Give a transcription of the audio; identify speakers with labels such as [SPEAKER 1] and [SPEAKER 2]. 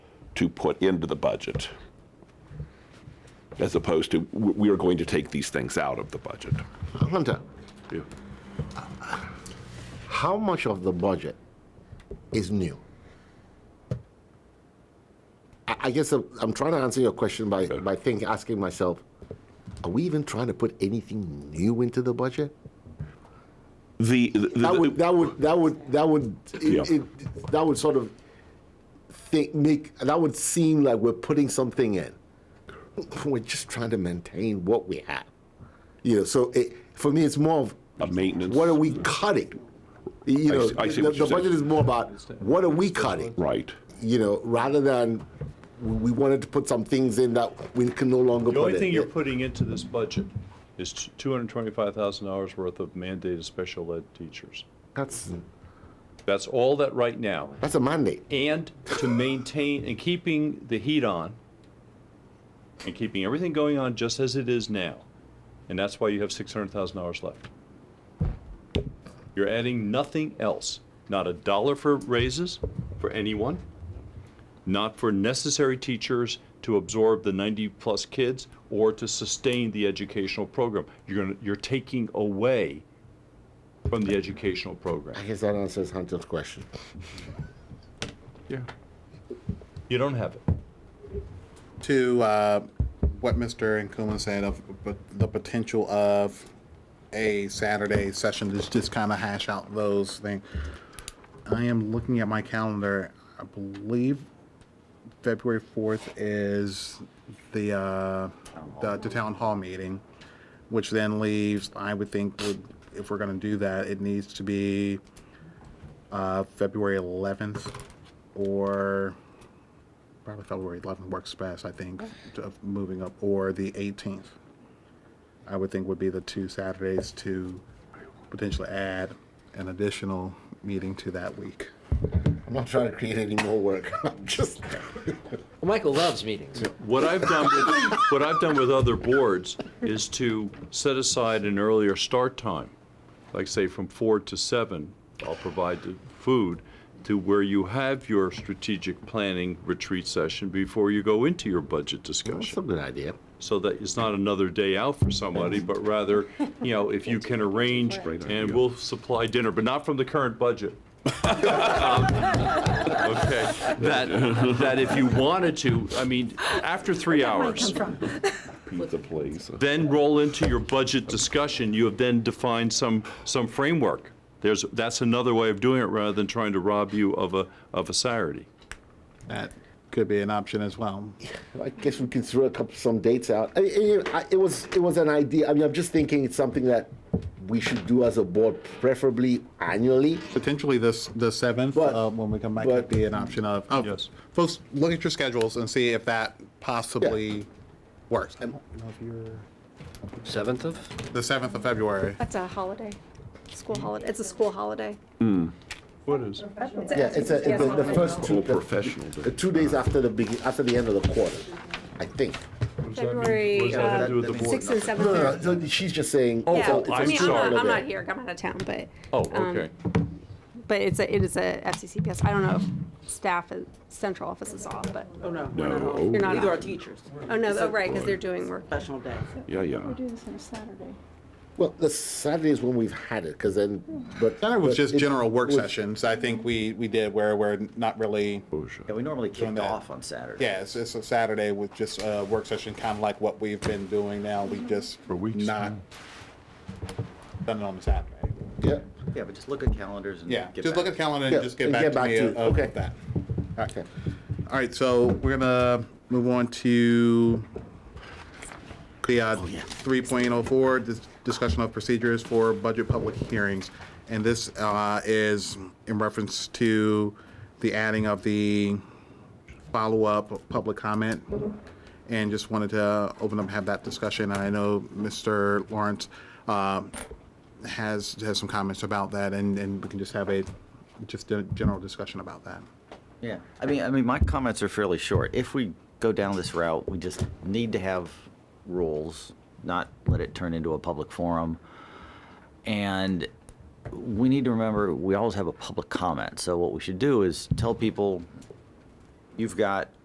[SPEAKER 1] to put into the budget, as opposed to, w- we are going to take these things out of the budget.
[SPEAKER 2] Hunter,
[SPEAKER 1] Yeah.
[SPEAKER 2] how much of the budget is new? I, I guess I'm, I'm trying to answer your question by, by thinking, asking myself, are we even trying to put anything new into the budget?
[SPEAKER 1] The, the-
[SPEAKER 2] That would,
[SPEAKER 1] the,
[SPEAKER 2] that would, that would, that would, it-
[SPEAKER 1] Yeah.
[SPEAKER 2] it- that would sort of think, make, that would seem like we're putting something in. We're just trying to maintain what we have. You know, so it, for me, it's more of.
[SPEAKER 1] A maintenance.
[SPEAKER 2] What are we cutting? You
[SPEAKER 1] I
[SPEAKER 2] know,
[SPEAKER 1] see- I see
[SPEAKER 2] the,
[SPEAKER 1] what you're
[SPEAKER 2] the budget
[SPEAKER 1] saying.
[SPEAKER 2] is more about what are we cutting?
[SPEAKER 1] right.
[SPEAKER 2] You know, rather than we wanted to put some things in that we can no longer
[SPEAKER 3] The
[SPEAKER 2] put
[SPEAKER 3] only
[SPEAKER 2] in.
[SPEAKER 3] thing you're putting into this budget is t- $225,000 worth of mandated special ed teachers.
[SPEAKER 2] That's,
[SPEAKER 3] That's all that right now.
[SPEAKER 2] that's a mandate.
[SPEAKER 3] And to maintain, and keeping the heat on, and keeping everything going on just as it is now. And that's why you have $600,000 left. You're adding nothing else. Not a dollar for raises for anyone, not for necessary teachers to absorb the 90-plus kids or to sustain the educational program. You're going to, you're taking away from the educational program.
[SPEAKER 2] I guess that answers Hunter's question.
[SPEAKER 3] Yeah. You don't have it.
[SPEAKER 4] to uh, what Mr. Nkuma said of but the potential of a Saturday session to just kind of hash out those things. I am looking at my calendar. I believe February 4th is the, uh, the, the town hall meeting, which then leaves, I would think, would, if we're going to do that, it needs to be uh, February 11th or probably February 11th works best, I think, to- of moving up, or the 18th. I would think would be the two Saturdays to potentially add an additional meeting to that week.
[SPEAKER 2] I'm not trying to create any more work. I'm just.
[SPEAKER 5] Well, Michael loves meetings.
[SPEAKER 3] What I've done with, what I've done with other boards is to set aside an earlier start time, like say from four to seven, I'll provide the food, to where you have your strategic planning retreat session before you go into your budget
[SPEAKER 2] That's a
[SPEAKER 3] discussion.
[SPEAKER 2] good idea.
[SPEAKER 3] So that it's not another day out for somebody, but rather, you know, if you can arrange, and we'll supply dinner, but not from the current budget. Um, Okay, that, that if you wanted to, I mean, after three hours,
[SPEAKER 1] Pizza place.
[SPEAKER 3] then roll into your budget discussion, you have then defined some, some framework. There's, that's another way of doing it rather than trying to rob you of a, of a Saturday.
[SPEAKER 4] That could be an option as well.
[SPEAKER 2] I guess we can throw a couple some dates out. I, I, I- it was it was an idea. I mean, I'm just thinking it's something that we should do as a board, preferably annually.
[SPEAKER 4] Potentially this, the 7th,
[SPEAKER 2] But-
[SPEAKER 4] uh, when we come back,
[SPEAKER 2] but-
[SPEAKER 4] could be an option of, of-
[SPEAKER 3] Yes.
[SPEAKER 4] folks, look at your schedules and see if that possibly works. I don't know if you're-
[SPEAKER 5] Seventh of?
[SPEAKER 4] The 7th of February.
[SPEAKER 6] That's a holiday, school holiday, it's a school holiday.
[SPEAKER 3] What is?
[SPEAKER 2] Yeah, it's, a, it's the, the first two,
[SPEAKER 1] Whole
[SPEAKER 2] the,
[SPEAKER 1] professional day.
[SPEAKER 2] the Uh, two days after the begin, after the end of the quarter, I think.
[SPEAKER 3] What
[SPEAKER 6] February
[SPEAKER 3] does that have to
[SPEAKER 6] uh,
[SPEAKER 3] do with the board?
[SPEAKER 6] sixth and
[SPEAKER 2] No, no, no,
[SPEAKER 6] seventh.
[SPEAKER 2] so she's just saying.
[SPEAKER 3] Oh,
[SPEAKER 6] Yeah,
[SPEAKER 3] oh,
[SPEAKER 6] I
[SPEAKER 3] I'm
[SPEAKER 6] mean, I'm
[SPEAKER 3] sorry.
[SPEAKER 6] not, I'm not here, I'm out of town, but.
[SPEAKER 3] Oh,
[SPEAKER 6] um,
[SPEAKER 3] okay.
[SPEAKER 6] But it's a, it is a FCCPS, I don't know if staff, at central office is off, but,
[SPEAKER 7] Oh, no.
[SPEAKER 1] No,
[SPEAKER 7] we're not
[SPEAKER 1] oh.
[SPEAKER 7] off.
[SPEAKER 6] You're not
[SPEAKER 7] Neither
[SPEAKER 6] off.
[SPEAKER 7] are teachers.
[SPEAKER 6] oh, no, oh, right, because they're doing work.
[SPEAKER 7] Professional day.
[SPEAKER 1] Yeah, yeah.
[SPEAKER 8] do this on a Saturday.
[SPEAKER 2] Well, the Saturday is when we've had it, because then. But
[SPEAKER 4] That was
[SPEAKER 2] but
[SPEAKER 4] just
[SPEAKER 2] it-
[SPEAKER 4] general work
[SPEAKER 2] was-
[SPEAKER 4] sessions, I think we, we did where we're not really
[SPEAKER 9] Yeah, we normally
[SPEAKER 4] Doing
[SPEAKER 9] kicked
[SPEAKER 4] that.
[SPEAKER 9] off on Saturday.
[SPEAKER 4] Yeah, it's, it's a Saturday with just a work session, kind of like what we've been doing now.
[SPEAKER 2] Mm-hmm.
[SPEAKER 4] We just
[SPEAKER 3] For weeks
[SPEAKER 4] not done it on the Saturday.
[SPEAKER 2] Yeah.
[SPEAKER 9] Yeah, but just look at calendars and
[SPEAKER 4] Yeah,
[SPEAKER 9] get
[SPEAKER 4] just look
[SPEAKER 9] back.
[SPEAKER 4] at calendar and
[SPEAKER 2] Yeah,
[SPEAKER 4] just get back to me
[SPEAKER 2] you.
[SPEAKER 4] of
[SPEAKER 2] Okay.
[SPEAKER 4] that.
[SPEAKER 2] Okay.
[SPEAKER 4] All right, so we're gonna move on to the uh, 3.04, dis- discussion of procedures for budget public hearings. And this uh, is in reference to the adding of the follow-up public comment. And just wanted to open up, have that discussion. I know Mr. Lawrence uh, has, has some comments about that, and, and we can just have a, just a general discussion about that.
[SPEAKER 9] Yeah, I mean, I mean, my comments are fairly short. If we go down this route, we just need to have rules, not let it turn into a public forum. And we need to remember, we always have a public comment. So what we should do is tell people, you've got